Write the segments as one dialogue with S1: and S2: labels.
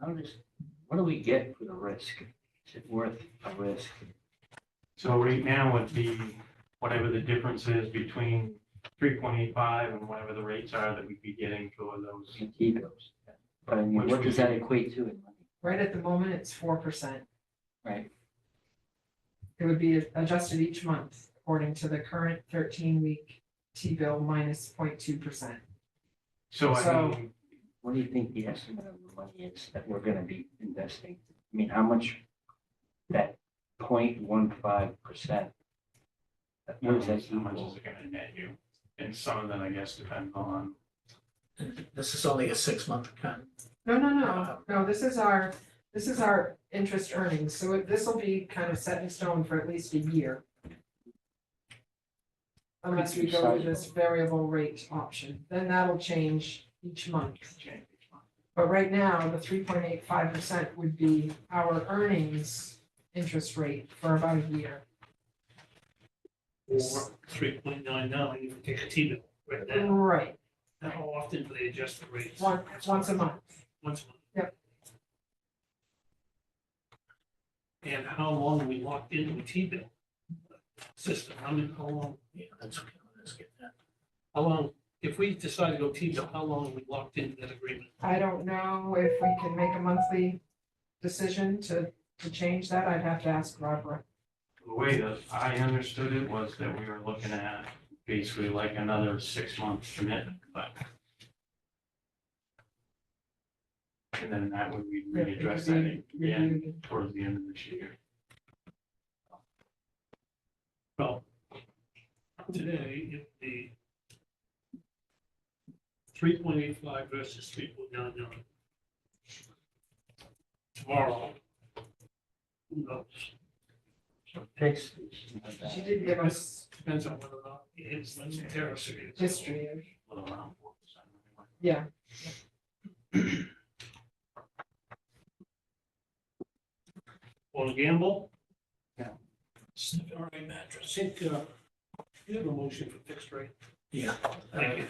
S1: How does, what do we get for the risk? Is it worth a risk?
S2: So right now with the, whatever the difference is between three point eight five and whatever the rates are that we'd be getting for those.
S1: to keep those? But I mean, what does that equate to in money?
S3: Right at the moment, it's four percent.
S1: Right.
S3: It would be adjusted each month according to the current thirteen week T-bill minus 0.2 percent.
S2: So I
S3: So-
S2: mean,
S1: What do you think the estimate of the money is that we're gonna be investing? I mean, how much that 0.15 percent?
S2: how
S1: What
S2: much
S1: does that
S2: is
S1: equal?
S2: it gonna net you? And some of that, I guess, depends on,
S4: This is only a six-month cut.
S3: No, no, no, no, this is our, this is our interest earnings, so it- this will be kind of set in stone for at least a year. Unless we go with this variable rate option, then that'll change each month. But right now, the three point eight five percent would be our earnings interest rate for about a year.
S5: Or three point nine nine, if you take a T bill right now,
S3: Right,
S5: and how often do they adjust the rates?
S3: once, once a month.
S5: Once a month.
S3: Yep.
S5: And how long are we locked into a T bill system? I mean, how long,
S4: Yeah, that's okay. Let's get that.
S5: how long, if we decide to go T bill, how long are we locked into that agreement?
S3: I don't know if we can make a monthly decision to, to change that, I'd have to ask Barbara.
S2: the way that I understood it was that we were looking at basically like another six month commitment, but. And then that would, we
S3: if it
S2: would address
S3: could
S2: that
S3: be
S2: again
S3: reviewed.
S2: towards the end of this year.
S5: Well, today, if the three point eight five versus three point nine nine. Tomorrow. Who knows?
S1: Fix.
S3: She did give us
S5: Depends on whether or not it hits the terrace. or it's-
S3: history of,
S2: Well, around four percent.
S3: yeah,
S5: Want to gamble?
S1: No.
S5: All right, mattress. I think, uh, you have a motion for fixed rate.
S4: Yeah.
S5: Thank you.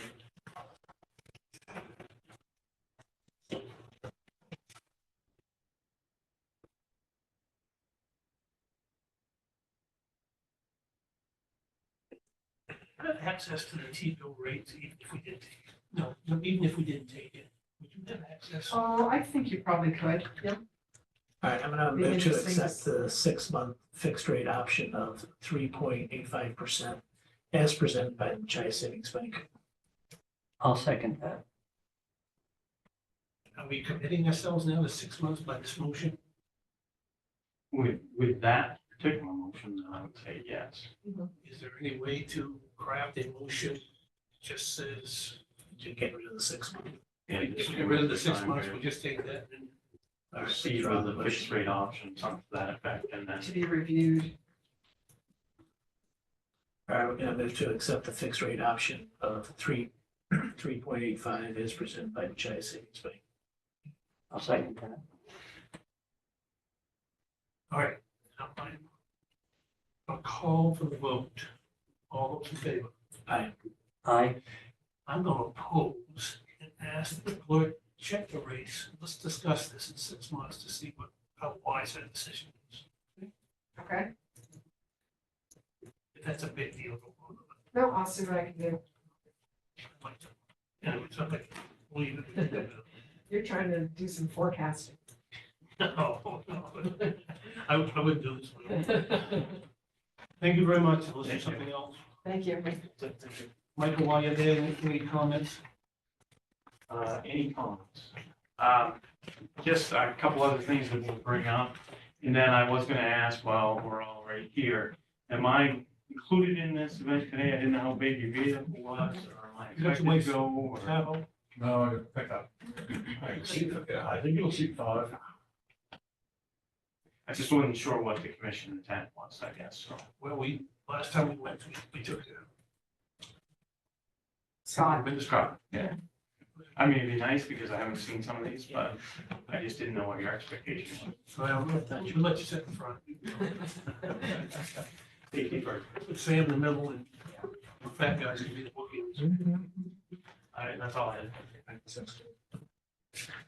S5: Have Access to the T-bill rates, even if we didn't, take it. no, no, even if we didn't take it, would you have access?
S3: oh, I think you probably could, yeah,
S4: All right, I'm gonna
S3: Be
S4: move to
S3: interesting to
S4: accept the six-month fixed rate option of three point eight five percent as presented by the Chi Savings Bank.
S1: I'll second that.
S5: Are we committing ourselves now to six months by this motion?
S2: With, with that particular motion, then I would say yes.
S5: Is there any way to craft a motion just says,
S4: To get rid of the six-month.
S5: hey, if we get rid of the six months, we'll just take that and
S4: All right,
S2: Proceed
S4: withdraw
S2: with
S4: the
S2: the fixed
S4: motion.
S2: rate option, something to that effect, and then
S3: to be reviewed,
S4: All right, we're gonna move to accept the fixed rate option of three, three point eight five as presented by the Chi Savings Bank.
S1: I'll second that.
S5: all right. now I'm- A call for the vote. All those in favor?
S1: I,
S5: I'm going to oppose and ask the clerk, check the rates. Let's discuss this in six months to see what, how wise that decision is.
S3: okay?
S5: If that's a big deal, go on.
S3: No, I'll see what I can do,
S5: I'd like to- Anyway, so I'm like, leave it.
S3: you're trying to do some forecasting.
S5: No, no. I would, I would do this one. Thank you very much. Unless there's something else.
S3: Thank you.
S2: Michael, while you're there, any- any comments? Uh, any comments? Um, just a couple other things that we'll bring up, and then I was gonna ask while we're all right here, am I included in this event today? I didn't know how big your vehicle was, or am I
S5: You got to
S2: expected to go? or-
S5: Travel.
S6: No, pick up. Yeah, I think it'll keep five.
S2: I just wasn't sure what the commission intent was, I guess, so.
S5: Well, we, last time we went, we- we took it.
S3: Scott,
S2: Administrator, yeah. I mean, it'd be nice because I haven't seen some of these, but I just didn't know what your expectation was.
S5: Well, you um, let you sit in front.
S2: Thank you for,
S5: Put Sam in the middle and the fat guys can be the bookies.
S2: I, that's all I had.